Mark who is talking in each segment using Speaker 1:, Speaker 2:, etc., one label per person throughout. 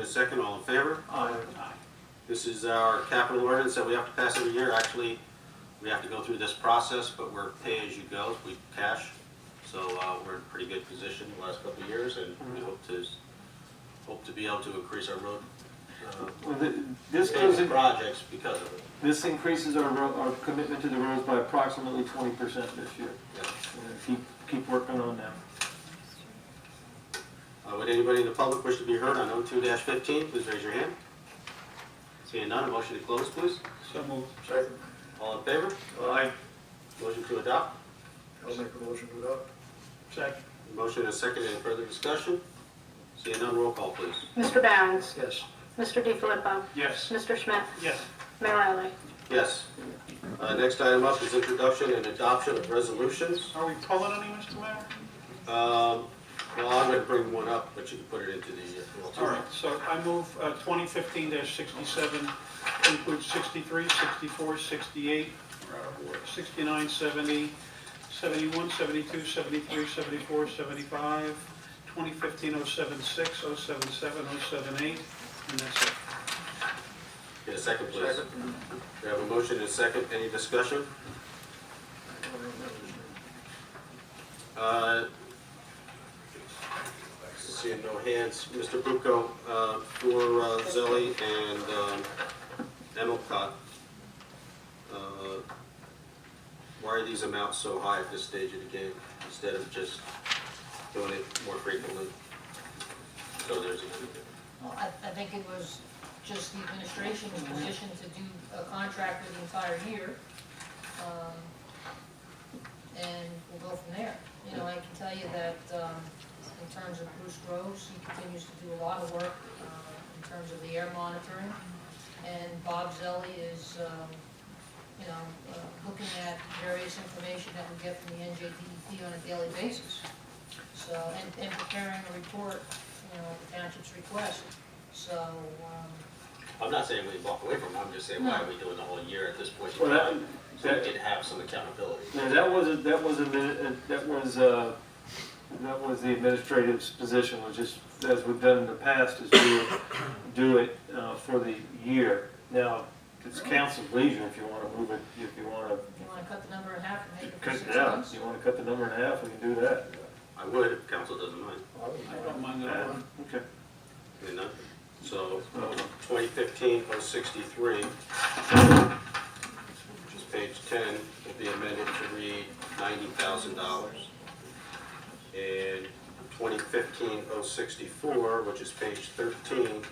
Speaker 1: A second, all in favor?
Speaker 2: Aye.
Speaker 1: This is our capital ordinance that we have to pass every year. Actually, we have to go through this process, but we're pay-as-you-go, we cash. So uh, we're in pretty good position the last couple of years, and we hope to, hope to be able to increase our road uh,
Speaker 2: Well, th- This goes,
Speaker 1: paving
Speaker 2: in-
Speaker 1: projects because of it.
Speaker 2: this increases our, ro- our commitment to the roads by approximately twenty percent this year.
Speaker 1: Yeah.
Speaker 2: And Keep, keep working on them.
Speaker 1: Uh, Would anybody in the public wish to be heard on 02-15? Please raise your hand. Seeing none, a motion to close, please.
Speaker 3: So moved.
Speaker 1: All in favor?
Speaker 3: Aye.
Speaker 1: Motion to adopt?
Speaker 4: I'll make a motion to adopt.
Speaker 3: Second.
Speaker 1: Motion and a second, any further discussion? Seeing none, roll call, please.
Speaker 5: Mr. Barron's,
Speaker 4: Yes.
Speaker 5: Mr. DiFilippo,
Speaker 3: Yes.
Speaker 5: Mr. Schmidt,
Speaker 3: Yes.
Speaker 5: Mayor Riley.
Speaker 1: Yes. Uh, Next item up is introduction and adoption of resolutions.
Speaker 3: Are we pulling any, Mr. Mayor?
Speaker 1: Um, Well, I'm going to bring one up, but you can put it into the... uh, well, two.
Speaker 3: All right, so I move uh, 2015-67 includes 63, 64, 68, uh, 69, 70, 71, 72, 73, 74, 75, 2015-076, 077, 078, and that's it.
Speaker 1: Get a second, please. We have a motion and a second, any discussion? Uh, Seeing no hands, Mr. Bucco, uh, for uh, Zelli and um, Emelkot, uh, why are these amounts so high at this stage of the game instead of just doing it more frequently? So there's, a-
Speaker 6: Well, I, I think it was just the administration's position to do a contract for the entire year. um, And we'll go from there. You know, I can tell you that, um, in terms of Bruce Groves, he continues to do a lot of work, uh, in terms of the air monitoring. And Bob Zelli is, um, you know, uh, looking at various information that we get from the NJDEP E on a daily basis. So, and, and preparing a report, you know, at the township's request, so, um,
Speaker 1: I'm not saying we walk away from it, I'm just saying, why are we doing the whole year at this point in
Speaker 2: Well, that-
Speaker 1: time? So we
Speaker 2: that-
Speaker 1: can have some accountability.
Speaker 2: Now, that was, a- that was, a min- uh, that was, uh, that was the administrative's position, was just, as we've done in the past, is do, do it uh, for the year. Now, it's council's leisure if you want to move it, if you want to
Speaker 6: if you wanna cut the number in half and make it for
Speaker 2: cut
Speaker 6: six
Speaker 2: it down.
Speaker 6: months.
Speaker 2: You want to cut the number in half, we can do that.
Speaker 1: I would, if council doesn't mind.
Speaker 3: I don't mind that
Speaker 2: Uh,
Speaker 3: one.
Speaker 2: Okay.
Speaker 1: You know? So, um, twenty fifteen oh sixty-three, which is page ten, will be amended to read ninety thousand dollars. And twenty fifteen oh sixty-four, which is page thirteen,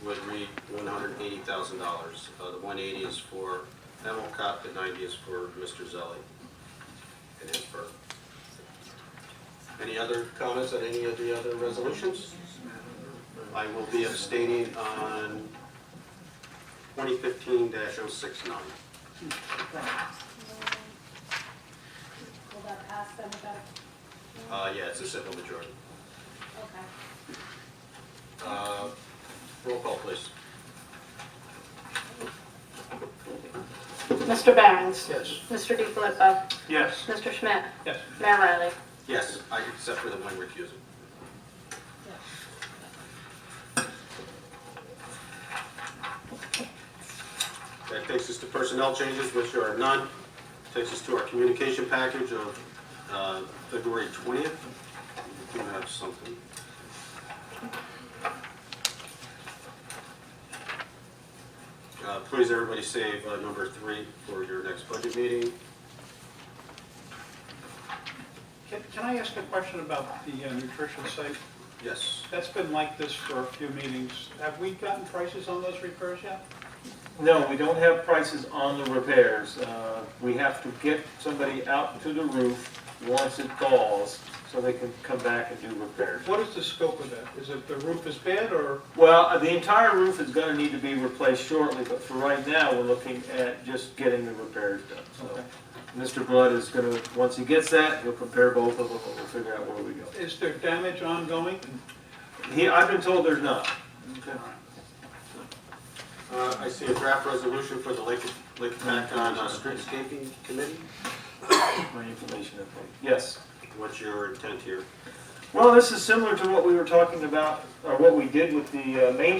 Speaker 3: 180.
Speaker 1: would read one hundred eighty thousand dollars. Uh, the one eighty is for Emelcott, the ninety is for Mr. Zelli and his firm. Any other comments on any of the other resolutions? I will be abstaining on twenty fifteen oh 69
Speaker 7: Will that pass then with that?
Speaker 1: Uh, yeah, it's a simple majority.
Speaker 7: Okay.
Speaker 1: Uh, roll call, please.
Speaker 5: Mr. Barron's,
Speaker 4: Yes.
Speaker 5: Mr. DiFilippo,
Speaker 3: Yes.
Speaker 5: Mr. Schmidt,
Speaker 3: Yes.
Speaker 5: Mayor Riley.
Speaker 1: Yes, I except for the one recusing. That takes us to personnel changes, which are none. Takes us to our communication package of uh, February 20th. We do have something. Uh, Please, everybody save uh, number three for your next budget meeting.
Speaker 3: Can can I ask a question about the uh, nutrition site?
Speaker 1: Yes.
Speaker 3: That's been like this for a few meetings. Have we gotten prices on those repairs yet?
Speaker 2: No, we don't have prices on the repairs. Uh, We have to get somebody out to the roof once it thaws, so they can come back and do repairs.
Speaker 3: What is the scope of that? Is it the roof is bad or,
Speaker 2: Well, uh, the entire roof is gonna need to be replaced shortly, but for right now, we're looking at just getting the repairs done, so.
Speaker 3: Okay.
Speaker 2: Mr. Blood is gonna, once he gets that, he'll compare both of them, and we'll figure out where we go.
Speaker 3: is there damage ongoing?
Speaker 2: He, I've been told there's not.
Speaker 1: Uh, I see a draft resolution for the Lake, Lake Pacon uh, Streetscaping Committee.
Speaker 2: My information, okay. Yes.
Speaker 1: What's your intent here?
Speaker 2: Well, this is similar to what we were talking about, or what we did with the uh, Main